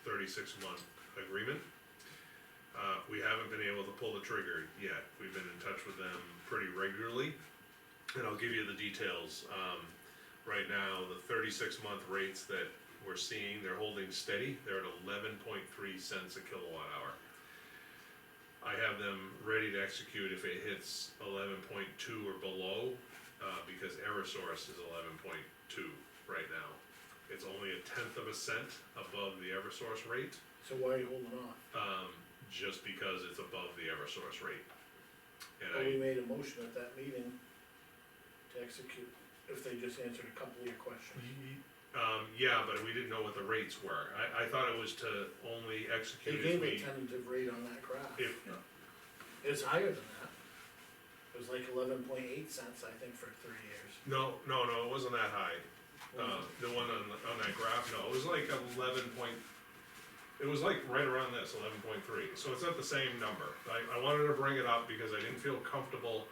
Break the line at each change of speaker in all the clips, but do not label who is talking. thirty-six month agreement. Uh, we haven't been able to pull the trigger yet, we've been in touch with them pretty regularly, and I'll give you the details, um, right now, the thirty-six month rates that we're seeing, they're holding steady, they're at eleven point three cents a kilowatt hour. I have them ready to execute if it hits eleven point two or below, uh, because Eversource is eleven point two right now. It's only a tenth of a cent above the Eversource rate,
So why are you holding off?
um, just because it's above the Eversource rate. And
Well, we
I,
made a motion at that meeting to execute, if they just answered a couple of your questions.
um, yeah, but we didn't know what the rates were, I, I thought it was to only
They
execute if
gave a
we,
tentative rate on that graph.
if,
It's higher than that. It was like eleven point eight cents, I think, for three years.
no, no, no, it wasn't that high. Uh, the one on, on that graph, no, it was like eleven point, it was like right around this, eleven point three, so it's not the same number. I, I wanted to bring it up because I didn't feel comfortable,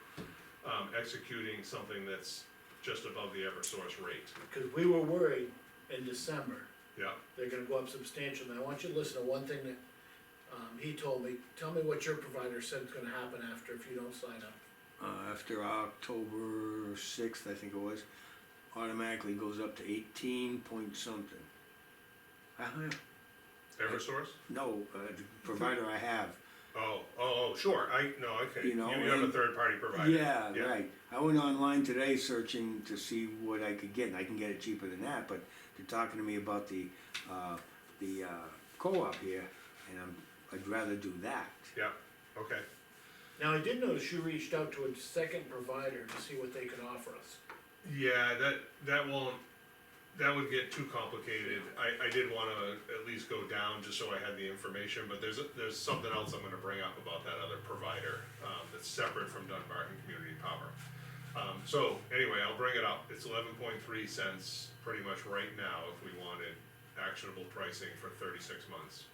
um, executing something that's just above the Eversource rate.
Cause we were worried in December,
Yeah,
they're gonna go up substantially, and I want you to listen to one thing that, um, he told me, tell me what your provider said is gonna happen after if you don't sign up.
uh, after October sixth, I think it was, automatically goes up to eighteen point something. I don't know.
Eversource?
No, uh, the provider I have.
Oh, oh, oh, sure, I, no, okay,
You
you,
know,
you have a
and-
third party provider.
Yeah, right. I went online today searching to see what I could get, and I can get it cheaper than that. But they're talking to me about the uh, the uh, co-op here, and I'm I'd rather do that.
Yeah, okay,
Now, I did notice you reached out to a second provider to see what they could offer us.
yeah, that, that won't, that would get too complicated. I, I did wanna at least go down just so I had the information, but there's, there's something else I'm gonna bring up about that other provider, um, that's separate from Dunbarton Community Power. Um, so, anyway, I'll bring it up, it's eleven point three cents pretty much right now if we wanted actionable pricing for thirty-six months.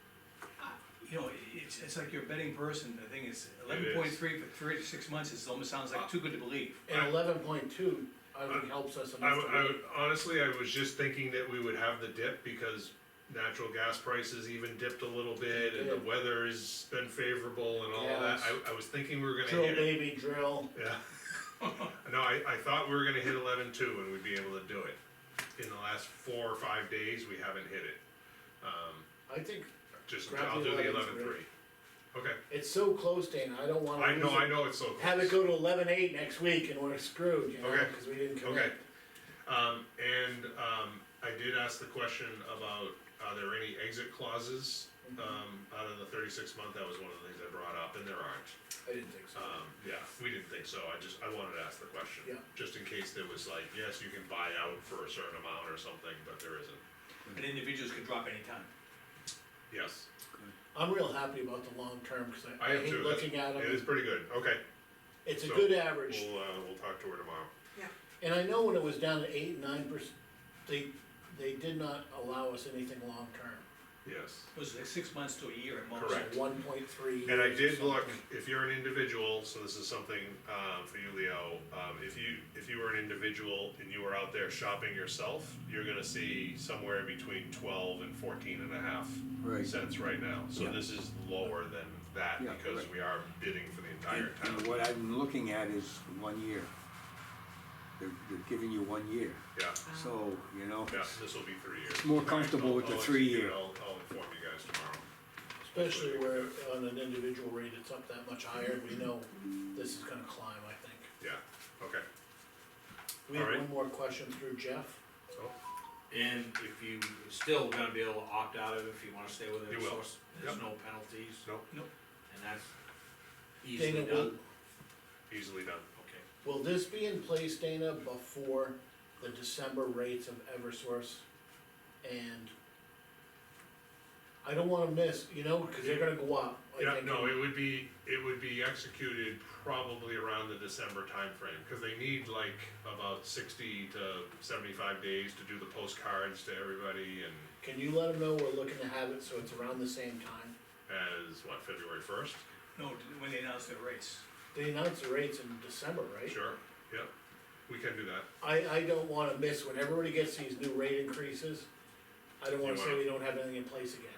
You know, it's, it's like you're a betting person, the thing is,
It is.
eleven point three for three to six months is, almost sounds
Uh,
like too good to believe.
And eleven point two, I think helps us
Uh, I
enough.
would,
to
I would, honestly, I was just thinking that we would have the dip because natural gas prices even dipped a little bit and the
Yeah.
weather has been favorable and all
Yeah,
that.
it's-
I, I was thinking we were gonna
Drill
hit it.
baby drill,
Yeah. No, I, I thought we were gonna hit eleven two and we'd be able to do it. In the last four or five days, we haven't hit it. Um,
I think
just,
Grab
I'll
the
do the
11
eleven
three.
three. Okay,
it's so close, Dana, I don't wanna.
I know,
lose Um, it.
I know it's so close.
Have it go to eleven eight next week and we're screwed, you know,
Okay.
cause we didn't
Okay,
commit.
um, and, um, I did ask the question about, are there any exit clauses,
Mm-hmm.
um, out of the thirty-six month, that was one of the things I brought up, and there aren't.
I didn't think so.
Um, yeah, we didn't think so, I just, I wanted to ask the question.
Yeah.
Just in case there was like, yes, you can buy out for a certain amount or something, but there isn't,
mm.
And individuals could drop anytime.
yes,
I'm real happy about the long term, cause I,
I
I
am
hate
too, that's,
looking at
it is
them,
pretty good, okay,
it's a
so-
good average.
we'll, uh, we'll talk to her tomorrow.
And I know when it was down to eight, nine percent, they, they did not allow us anything long term.
Yes.
It was like six months to a year at most.
Correct.
One point three.
And I did look, if you're an individual, so this is something, um, for you, Leo, um, if you, if you were an individual and you were out there shopping yourself, you're gonna see somewhere between twelve and fourteen and a half
Right.
cents right now. So
Yeah.
this is lower than that
Yeah,
because
right.
we are bidding for the
And,
entire
and
town.
what I'm looking at is one year. They're, they're giving you one year,
Yeah,
so you know.
yeah, this will be three years.
More
Okay,
comfortable
I'll-
with the
I'll
three
execute it.
year.
I'll, I'll inform you guys tomorrow.
Especially where on an individual rate, it's up that much higher, we know this is gonna climb, I think.
Yeah, okay.
We have
Alright.
one more question through Jeff.
Oh,
And if you, still gonna be able to opt out of it if you wanna stay with
You
it,
will.
so it's- there's no penalties,
no,
and that's
Dana,
easily
will,
done,
easily done.
okay.
will this be in place, Dana, before the December rates of Eversource? And I don't wanna miss, you know, cause they're gonna go up. I
Yeah,
think.
no, it would be, it would be executed probably around the December timeframe, cause they need like about sixty to seventy-five days to do the postcards to everybody and
Can you let them know we're looking to have it, so it's around the same time?
as, what, February first?
No, when they announce their race.
They announced the rates in December, right?
Sure, yep, we can do that.
I, I don't wanna miss, when everybody gets these new rate increases, I don't wanna
You
say
wanna-
we don't have anything in place again.